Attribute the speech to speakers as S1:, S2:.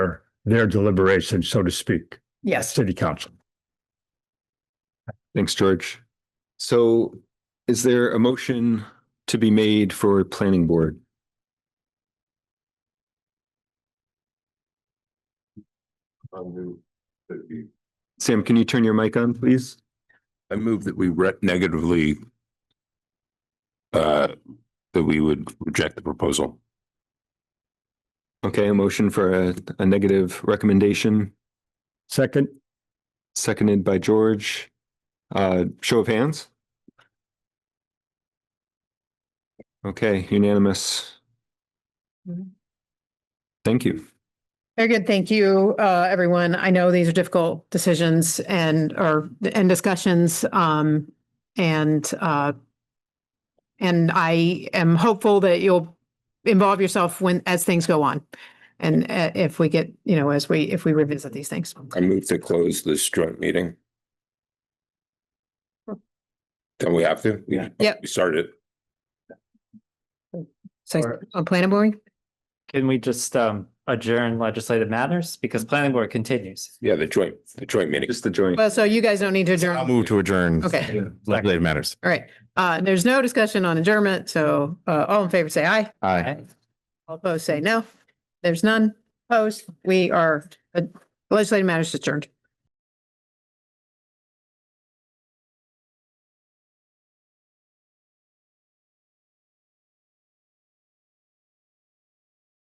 S1: their deliberation, so to speak,
S2: Yes,
S1: city council.
S3: Thanks, George. So is there a motion to be made for planning board? Sam, can you turn your mic on, please?
S4: I move that we re- negatively uh, that we would reject the proposal.
S3: Okay, a motion for a, a negative recommendation,
S1: Second,
S3: seconded by George. Uh, show of hands? Okay, unanimous.
S2: Mhm.
S3: Thank you.
S2: very good. Thank you, uh, everyone. I know these are difficult decisions and, or, and discussions, um, and, uh, and I am hopeful that you'll involve yourself when, as things go on. And, uh, if we get, you know, as we, if we revisit these things.
S4: I move to close this joint meeting. Don't we have to?
S1: Yeah.
S2: Yep.
S4: We started.
S2: So, on planning board?
S5: Can we just um adjourn legislative matters? Because planning board continues.
S4: Yeah, the joint, the joint meeting.
S3: Just the joint.
S2: Well, so you guys don't need to
S6: I'll
S2: adjourn.
S6: move to adjourn.
S2: Okay.
S6: Legislative matters.
S2: All right. Uh, there's no discussion on adjournment. So, uh, all in favor, say aye.
S6: Aye.
S5: right?
S2: All opposed, say no. There's none opposed. We are, uh, legislative matters adjourned.